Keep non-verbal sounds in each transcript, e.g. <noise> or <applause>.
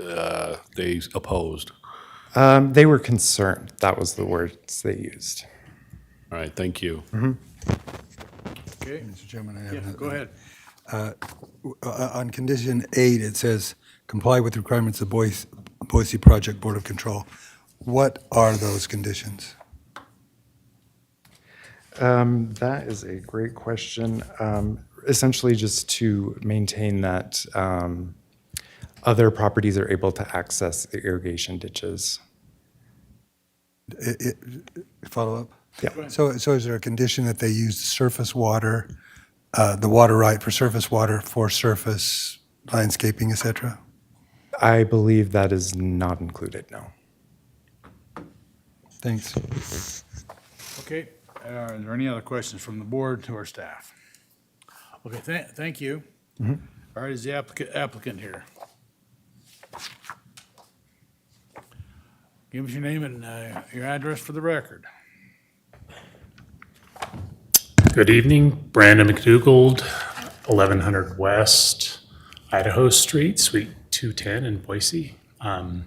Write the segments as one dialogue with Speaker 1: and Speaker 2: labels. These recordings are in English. Speaker 1: uh, they opposed?
Speaker 2: Um, they were concerned. That was the words they used.
Speaker 1: All right, thank you.
Speaker 3: Okay,
Speaker 4: Mr. Chairman, I have.
Speaker 3: yeah,
Speaker 4: another-
Speaker 3: go ahead.
Speaker 4: uh, On condition eight, it says comply with requirements of Boise, Boise Project Board of Control. What are those conditions?
Speaker 2: Um, that is a great question. Um, essentially, just to maintain that um, other properties are able to access the irrigation ditches.
Speaker 4: I- I- Follow up?
Speaker 2: Yeah. Go ahead.
Speaker 4: So, so is there a condition that they use surface water, uh, the water right for surface water, for surface landscaping, et cetera?
Speaker 2: I believe that is not included, no.
Speaker 4: Thanks.
Speaker 3: Okay, uh, is there any other questions from the board to our staff? Okay, thank, thank you. All right, is the applicant, applicant here? Give us your name and uh, your address for the record.
Speaker 5: Good evening, Brandon McDougald, 1100 West Idaho Street, Suite 210 in Boise. Um,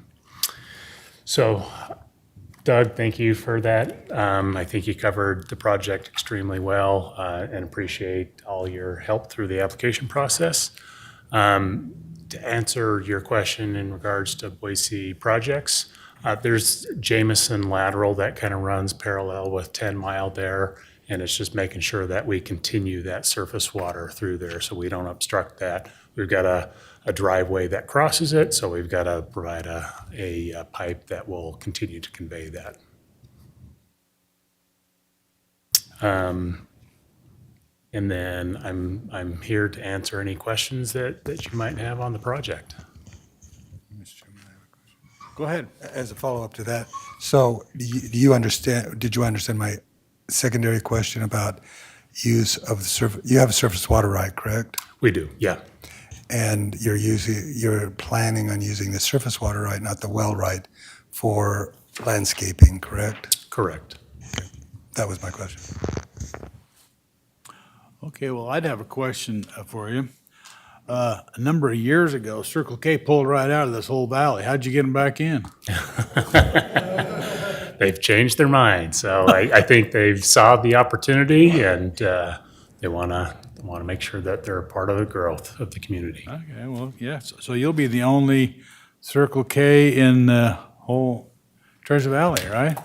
Speaker 5: So Doug, thank you for that. Um, I think you covered the project extremely well uh, and appreciate all your help through the application process. Um, To answer your question in regards to Boise projects, uh, there's Jamison lateral that kind of runs parallel with 10 Mile there. And it's just making sure that we continue that surface water through there so we don't obstruct that. We've got a, a driveway that crosses it, so we've got to provide a, a uh, pipe that will continue to convey that. Um, And then I'm, I'm here to answer any questions that, that you might have on the project.
Speaker 3: Go ahead.
Speaker 4: As a follow-up to that, so do you, do you understand, did you understand my secondary question about use of the surface, you have a surface water right, correct?
Speaker 5: We do, yeah.
Speaker 4: And you're using, you're planning on using the surface water right, not the well right, for landscaping, correct?
Speaker 5: Correct.
Speaker 4: That was my question.
Speaker 3: Okay, well, I'd have a question uh, for you. Uh, A number of years ago, Circle K pulled right out of this whole valley. How'd you get them back in?
Speaker 5: They've changed their mind, so I, I think they've saw the opportunity and uh, they want to, want to make sure that they're a part of the growth of the community.
Speaker 3: Okay, well, yes, so you'll be the only Circle K in the whole Treasure Valley, right?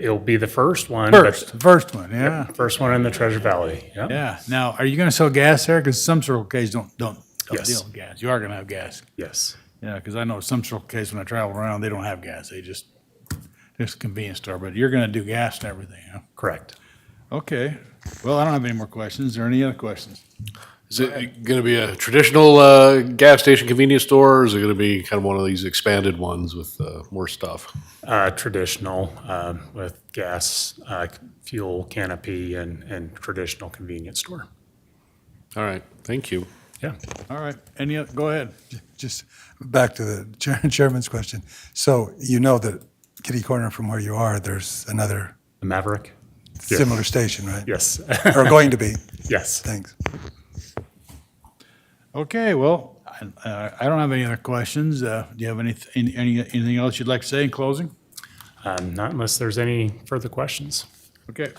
Speaker 5: It'll be the first one. but-
Speaker 3: First, first one, yeah,
Speaker 5: First one in the Treasure Valley, yeah.
Speaker 3: yeah. Now, are you gonna sell gas there? Because some Circle Ks don't, don't, don't
Speaker 5: Yes.
Speaker 3: deal in gas. You are gonna have gas.
Speaker 5: Yes.
Speaker 3: Yeah, because I know some Circle Ks, when I travel around, they don't have gas. They just, just convenience store, but you're gonna do gas and everything, huh?
Speaker 5: Correct.
Speaker 3: Okay, well, I don't have any more questions. Is there any other questions?
Speaker 1: Is it going to be a traditional uh, gas station convenience store, or is it going to be kind of one of these expanded ones with uh, more stuff?
Speaker 5: Uh, traditional, um, with gas, uh, fuel canopy and, and traditional convenience store.
Speaker 1: All right, thank you.
Speaker 5: Yeah.
Speaker 3: All right, any, oth- go ahead.
Speaker 4: Just back to the <laughs> chair- chairman's question. So you know that kitty corner from where you are, there's another
Speaker 5: The Maverick?
Speaker 4: similar station, right?
Speaker 5: Yes. <laughs>
Speaker 4: Or going to be.
Speaker 5: Yes.
Speaker 4: Thanks.
Speaker 3: Okay, well, I- uh, I, I don't have any other questions. Uh, do you have any, any, any- anything else you'd like to say in closing?
Speaker 5: Um, not unless there's any further questions.
Speaker 3: Okay.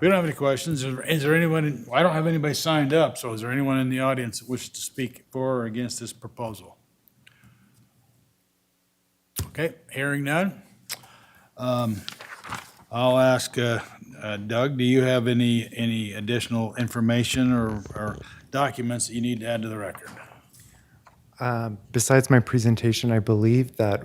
Speaker 3: We don't have any questions. Is is there anyone, in- I don't have anybody signed up, so is there anyone in the audience that wishes to speak for or against this proposal? Okay, hearing none. Um, I'll ask uh, uh, Doug, do you have any, any additional information or, or documents that you need to add to the record?
Speaker 2: Besides my presentation, I believe that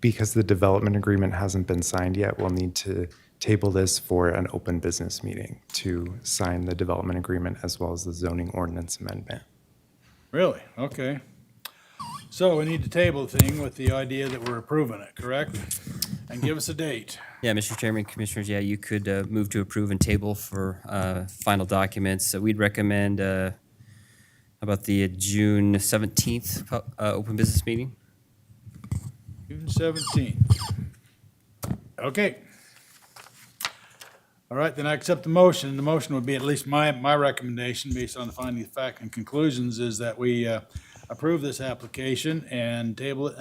Speaker 2: because the development agreement hasn't been signed yet, we'll need to table this for an open business meeting to sign the development agreement as well as the zoning ordinance amendment.
Speaker 3: Really? Okay. So we need to table the thing with the idea that we're approving it, correct? And give us a date.
Speaker 6: Yeah, Mr. Chairman, Commissioners, yeah, you could uh, move to approve and table for uh, final documents. So we'd recommend uh, about the June 17th pu- uh, open business meeting.
Speaker 3: June seventeenth. Okay. All right, then I accept the motion. The motion would be, at least my, my recommendation, based on the finding of fact and conclusions, is that we uh, approve this application and table it